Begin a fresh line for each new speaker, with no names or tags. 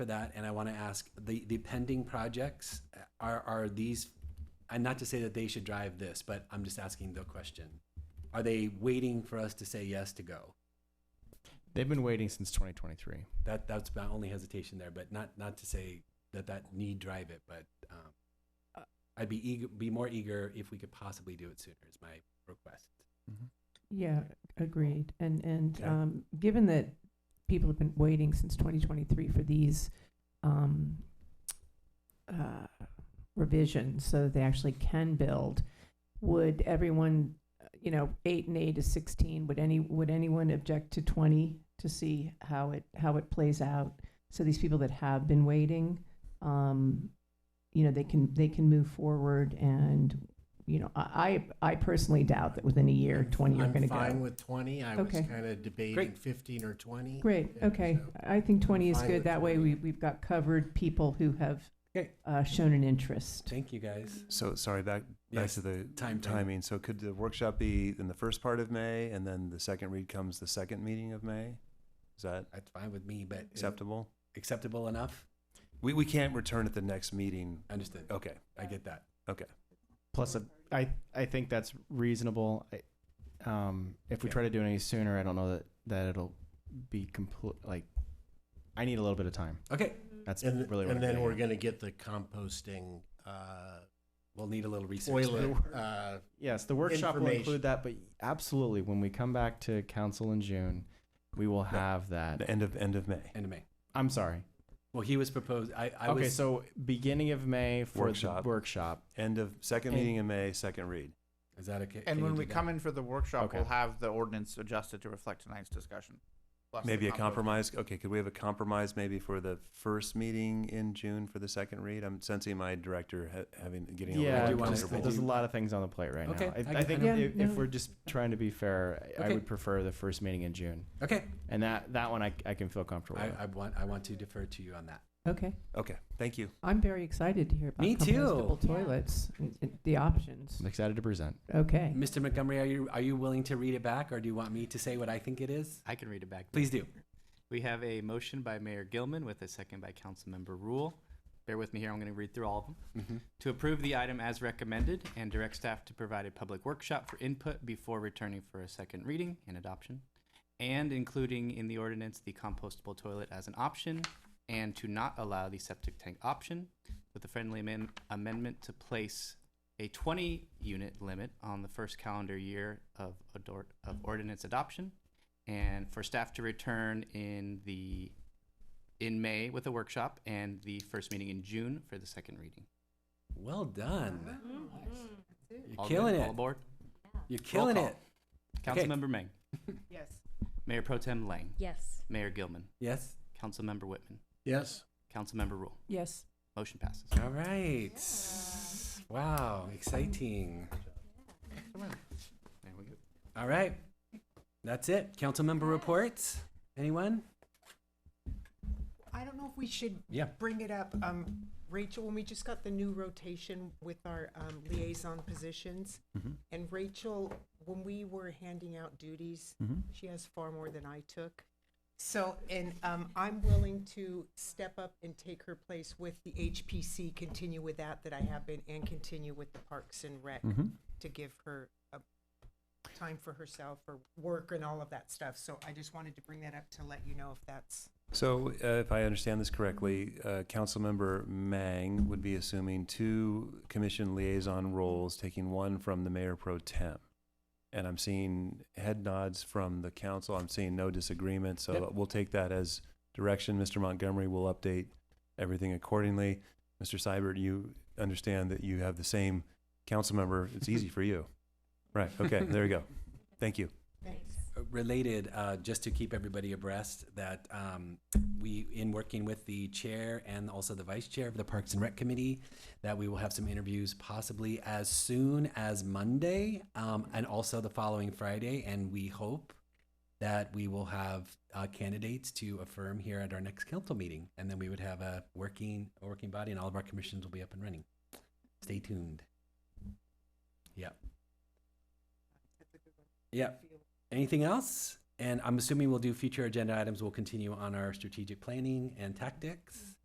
for that, and I want to ask, the, the pending projects, uh, are, are these, and not to say that they should drive this, but I'm just asking the question. Are they waiting for us to say yes to go?
They've been waiting since 2023.
That, that's my only hesitation there, but not, not to say that that need drive it, but, um, I'd be eager, be more eager if we could possibly do it sooner is my request.
Yeah, agreed. And, and,
Okay.
um, given that people have been waiting since twenty twenty-three for these, um, uh, revisions so that they actually can build, would everyone, uh, you know, eight and eight is sixteen, would any, would anyone object to twenty to see how it, how it plays out? So these people that have been waiting, um, you know, they can, they can move forward and, you know, I, I I personally doubt that within a year, twenty are gonna go.
I'm fine with 20. I was
Okay.
kind of debating
Great.
15 or 20.
Great,
Yeah,
okay.
so-
I think 20 is
fine
good.
with
That way,
20.
we, we've got covered people who have
Okay.
uh, shown an interest.
Thank you, guys.
So, sorry, back, back
Yes,
to the
time frame.
timing. So could the workshop be in the first part of May and then the second read comes the second meeting of May? Is that
That's fine with me, but is
acceptable?
acceptable enough?
We, we can't return at the next meeting.
Understood.
Okay.
I get that.
Plus, a- I I think that's reasonable. I, um, if we
Yeah.
try to do it any sooner, I don't know that that it'll be complete. Like, I need a little bit of time.
Okay,
That's
And,
really
and
what. I'm
then
getting
we're
at.
going to get the composting uh,
we'll need a little research.
toilet. Uh,
Yes, the workshop will
information.
include that, but absolutely, when we come back to council in June, we will have that.
The end of, end of May.
End of May.
I'm sorry.
Well, he was proposed, I, I
okay,
was,
so beginning of May for
Workshop.
the workshop.
End of, second
And-
meeting in May, second read.
is that okay?
And when we come in for the workshop,
Okay.
we'll have the ordinance adjusted to reflect tonight's discussion. plus the
Maybe a
compo-
compromise. Okay, could we have a compromise maybe for the first meeting in June for the second read? I'm sensing my director ha- having, getting a
Yeah,
I
little
do wanna-
there's-
I
there's a
uncomfortable.
do-
lot of things on the plate right
Okay,
now. I,
I
I,
get-
think
I
if,
get-
if
Yeah,
we're just trying to be fair, I, I
Okay.
would prefer the first meeting in June,
Okay,
and that that one I, I can feel comfortable.
I,
with.
I want, I want to defer to you on that.
Okay.
Okay, thank you.
I'm very excited to hear about
Me too.
compostable toilets, and- and the options.
I'm excited to present.
Okay.
Mr. Montgomery, are you, are you willing to read it back or do you want me to say what I think it is?
I can read it back. now.
Please do.
We have a motion by Mayor Gilman with a second by Councilmember Rule. Bear with me here, I'm going to read through all of them. To approve the item as recommended and direct staff to provide a public workshop for input before returning for a second reading and adoption, and including in the ordinance the compostable toilet as an option, and to not allow the septic tank option with a friendly amend- amendment to place a 20 unit limit on the first calendar year of, ador- of ordinance adoption and for staff to return in the in May with a workshop and the first meeting in June for the second reading.
Well done. You're
All
killing
good? All
it.
aboard.
You're killing
call.
it. Okay.
Councilmember Meng,
Yes.
Mayor Pro Tem Lang,
Yes.
Mayor Gilman,
Yes.
Councilmember Whitman,
yes.
Councilmember Rule.
Yes.
Motion passes.
All right. Wow, exciting.
There we go.
All right. That's it. Council member reports. Anyone?
I don't know if we should
Yeah.
bring it up. Um, Rachel, when we just got the new rotation with our um, liaison positions, and Rachel, when we were handing out duties, she has far more than I took. So, and um, I'm willing to step up and take her place with the HPC, continue with that that I have been, and continue with the Parks and Rec
Mm.
to give her a time for herself or work and all of that stuff. So I just wanted to bring that up to let you know if that's
So uh, if I understand this correctly, uh, Councilmember Mang would be assuming two commission liaison roles, taking one from the mayor pro tem. And I'm seeing head nods from the council. I'm seeing no disagreement, so
Yep.
we'll take that as direction. Mr. Montgomery will update everything accordingly. Mr. Seibert, you understand that you have the same council member. It's easy for you. Right, okay, there you go. Thank you.
related, uh, just to keep everybody abreast, that um, we, in working with the chair and also the vice chair of the Parks and Rec Committee, that we will have some interviews possibly as soon as Monday um, and also the following Friday. And we hope that we will have uh, candidates to affirm here at our next council meeting. And then we would have a working, a working body and all of our commissions will be up and running. Stay tuned. Yep. Yep. Anything else? And I'm assuming we'll do future agenda items. We'll continue on our strategic planning and tactics.